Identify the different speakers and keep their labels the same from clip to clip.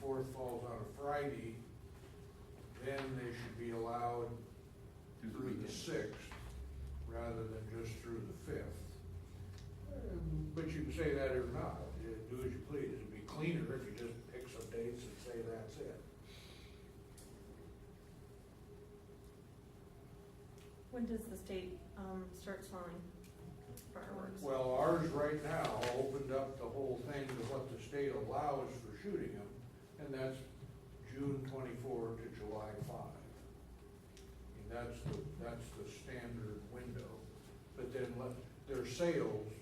Speaker 1: fourth falls on a Friday, then they should be allowed
Speaker 2: Through the
Speaker 1: through the
Speaker 2: weekend.
Speaker 1: sixth, rather than just through the fifth. Um, But you can say that or not, You do as you please, it'd be cleaner if you just pick some dates and say that's it.
Speaker 3: When does the state, um, start selling fireworks?
Speaker 1: Well, ours right now opened up the whole thing to what the state allows for shooting them, and that's June twenty-four to July five. And that's the, that's the standard window, but then let, their sales,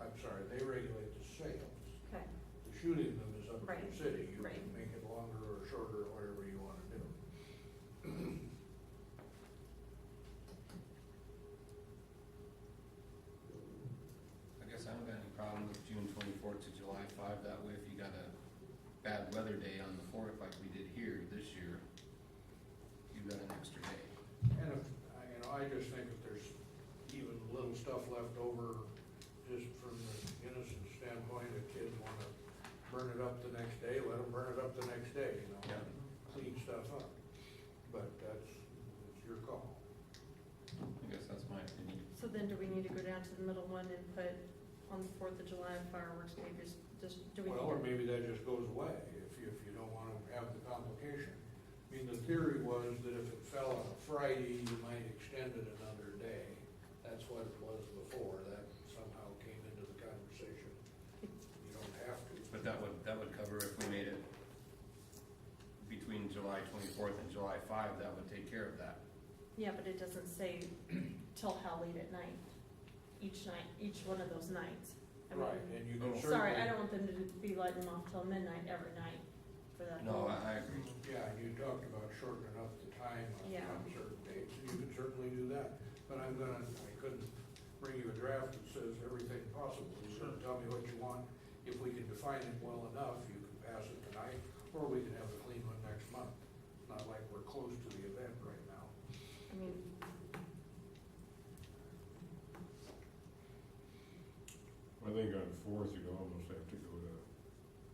Speaker 1: I'm sorry, they regulate the sales.
Speaker 3: Okay,
Speaker 1: The shooting them is up to
Speaker 3: Right,
Speaker 1: the city, you can
Speaker 3: right.
Speaker 1: make it longer or shorter, whatever you wanna do.
Speaker 2: I guess I haven't got any problem with June twenty-fourth to July five, that way if you got a bad weather day on the fourth like we did here this year, you've got an extra day.
Speaker 1: And if, I- you know, I just think if there's even little stuff left over, just from the innocent standpoint, a kid wanna burn it up the next day, let them burn it up the next day, you know?
Speaker 2: Yeah.
Speaker 1: Clean stuff up, but that's, it's your call.
Speaker 2: I guess that's my opinion.
Speaker 3: so then do we need to go down to the middle one and put on the Fourth of July fireworks, maybe just, just, do we need
Speaker 1: Well, or
Speaker 3: to?
Speaker 1: maybe that just goes away, if you, if you don't wanna have the complication. I mean, the theory was that if it fell on a Friday, you might extend it another day. That's what it was before, that somehow came into the conversation. You don't have to.
Speaker 2: But that would, that would cover if we made it between July twenty-fourth and July five, that would take care of that.
Speaker 3: Yeah, but it doesn't say till how late at night, each night, each one of those nights. I mean,
Speaker 1: Right, and you can
Speaker 2: Oh.
Speaker 1: certainly.
Speaker 3: Sorry, I don't want them to be lighting them off till midnight every night for that.
Speaker 2: No,
Speaker 3: whole-
Speaker 2: I, I agree.
Speaker 1: Yeah, and you talked about shortening up the time on
Speaker 3: Yeah.
Speaker 1: on certain dates, and you can certainly do that. But I'm gonna, I couldn't bring you a draft that says everything possible, you can tell me what you want. If we can define it well enough, you can pass it tonight, or we can have a clean one next month. Not like we're close to the event right now.
Speaker 3: I mean,
Speaker 4: I think on the fourth, you'd almost have to go to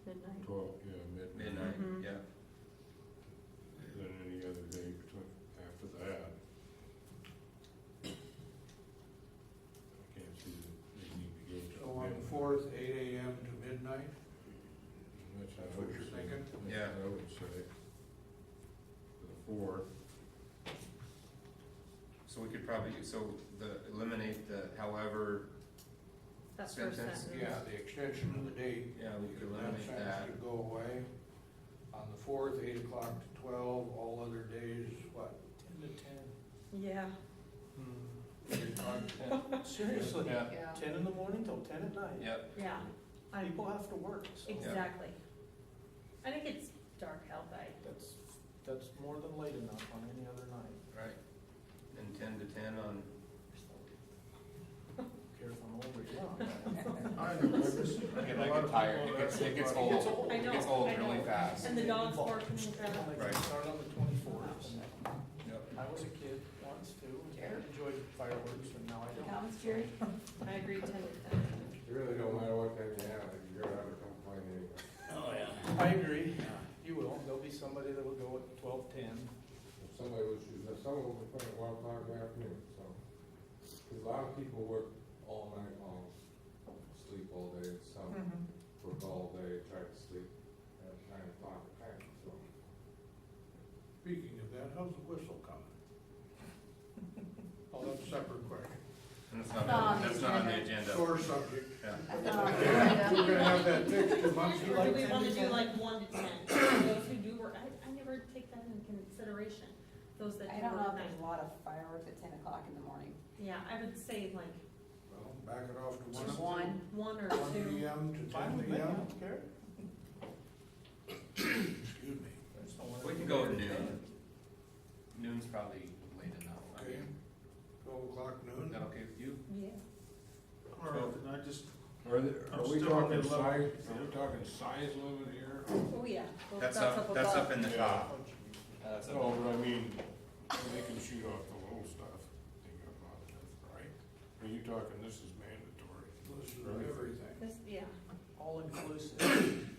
Speaker 3: midnight.
Speaker 4: twelve, yeah, midnight,
Speaker 2: Midnight,
Speaker 3: Mhm.
Speaker 2: yeah.
Speaker 4: than any other day between, after that. I can't see that they need to go to.
Speaker 1: So on the
Speaker 4: midnight.
Speaker 1: fourth, eight AM to midnight,
Speaker 4: That's
Speaker 1: That's
Speaker 4: I
Speaker 1: what
Speaker 4: would
Speaker 1: you're
Speaker 4: say.
Speaker 1: thinking?
Speaker 4: That's what
Speaker 2: Yeah.
Speaker 4: I would say. The fourth,
Speaker 2: So we could probably, so the, eliminate the however,
Speaker 3: That first
Speaker 2: Sentence,
Speaker 3: sentence.
Speaker 1: yeah, the extension of the date,
Speaker 2: yeah, we could
Speaker 1: That
Speaker 2: eliminate
Speaker 1: sentence
Speaker 2: that.
Speaker 1: could go away. On the fourth, eight o'clock to twelve, all other days, what?
Speaker 5: Ten to ten.
Speaker 3: Yeah,
Speaker 1: Eight o'clock to
Speaker 5: Seriously,
Speaker 2: Yeah,
Speaker 6: Yeah.
Speaker 5: ten in the morning till ten at night.
Speaker 2: yep,
Speaker 3: yeah, I,
Speaker 5: People have to work, so
Speaker 3: exactly. I think it's dark out by
Speaker 5: that's, that's more than late enough on any other night.
Speaker 2: right. And ten to ten on,
Speaker 5: Care if I'm old or young.
Speaker 4: I don't know, this-
Speaker 2: it
Speaker 4: a lot
Speaker 2: gets
Speaker 4: of
Speaker 2: tired,
Speaker 4: people
Speaker 2: it gets, it gets
Speaker 4: that-
Speaker 5: It gets
Speaker 2: old.
Speaker 5: old.
Speaker 3: I
Speaker 2: It
Speaker 3: know,
Speaker 2: gets old
Speaker 3: I
Speaker 2: really
Speaker 3: know.
Speaker 2: fast.
Speaker 3: And the dogs barking and
Speaker 5: They
Speaker 3: stuff.
Speaker 2: Right.
Speaker 5: start on the twenty-fourth.
Speaker 2: Yep.
Speaker 5: I was a kid once too,
Speaker 6: Jerry?
Speaker 5: and enjoyed fireworks, and now I don't.
Speaker 3: That was Jerry. I agree ten with that.
Speaker 7: It really don't matter what time you have, if you're out of complaint anyway.
Speaker 5: I agree, you will, there'll be somebody that will go at twelve-ten.
Speaker 7: If somebody was, if someone was playing at one o'clock in the afternoon, so. 'Cause a lot of people work all night long, sleep all day, some work all day, try to sleep at nine o'clock at night, so.
Speaker 1: Speaking of that, how's the whistle coming? Oh, that's a separate question.
Speaker 2: And that's not, on- that's not on the agenda.
Speaker 1: Sore subject.
Speaker 2: Yeah.
Speaker 1: We're gonna have that fixed in months.
Speaker 5: you
Speaker 3: Or do
Speaker 5: like
Speaker 3: we
Speaker 5: 10
Speaker 3: wanna
Speaker 5: to
Speaker 3: do
Speaker 5: 10?
Speaker 3: like one to ten, those who do work, I, I never take that into consideration, those that
Speaker 6: I
Speaker 3: do work
Speaker 6: don't know
Speaker 3: at
Speaker 6: if
Speaker 3: night.
Speaker 6: there's a lot of fireworks at ten o'clock in the morning.
Speaker 3: Yeah, I would say like
Speaker 1: Well, back it off to one.
Speaker 6: Just one.
Speaker 3: one or
Speaker 1: One
Speaker 3: two,
Speaker 1: PM to
Speaker 5: Fine with
Speaker 1: ten
Speaker 5: me, I
Speaker 1: PM,
Speaker 5: don't care.
Speaker 1: excuse me.
Speaker 5: There's no one
Speaker 2: We
Speaker 5: at
Speaker 2: can go at
Speaker 5: 10.
Speaker 2: noon. Noon's probably late enough. I
Speaker 1: Okay.
Speaker 2: mean,
Speaker 1: Twelve o'clock
Speaker 2: Is
Speaker 1: noon.
Speaker 2: that okay with you?
Speaker 3: yeah,
Speaker 2: Twelve.
Speaker 8: And I just,
Speaker 4: Are there,
Speaker 8: I'm
Speaker 4: are we
Speaker 8: still on the
Speaker 4: talking size,
Speaker 8: level.
Speaker 4: are we talking size limit here?
Speaker 3: oh yeah. Well,
Speaker 2: That's up, that's
Speaker 3: above.
Speaker 2: up in the
Speaker 4: Yeah.
Speaker 2: top.
Speaker 4: That's all, but I mean, they can shoot off the little stuff, they got a lot of stuff, right? Are you talking, this is mandatory?
Speaker 1: Listen to everything.
Speaker 3: This, yeah,
Speaker 5: All inclusive,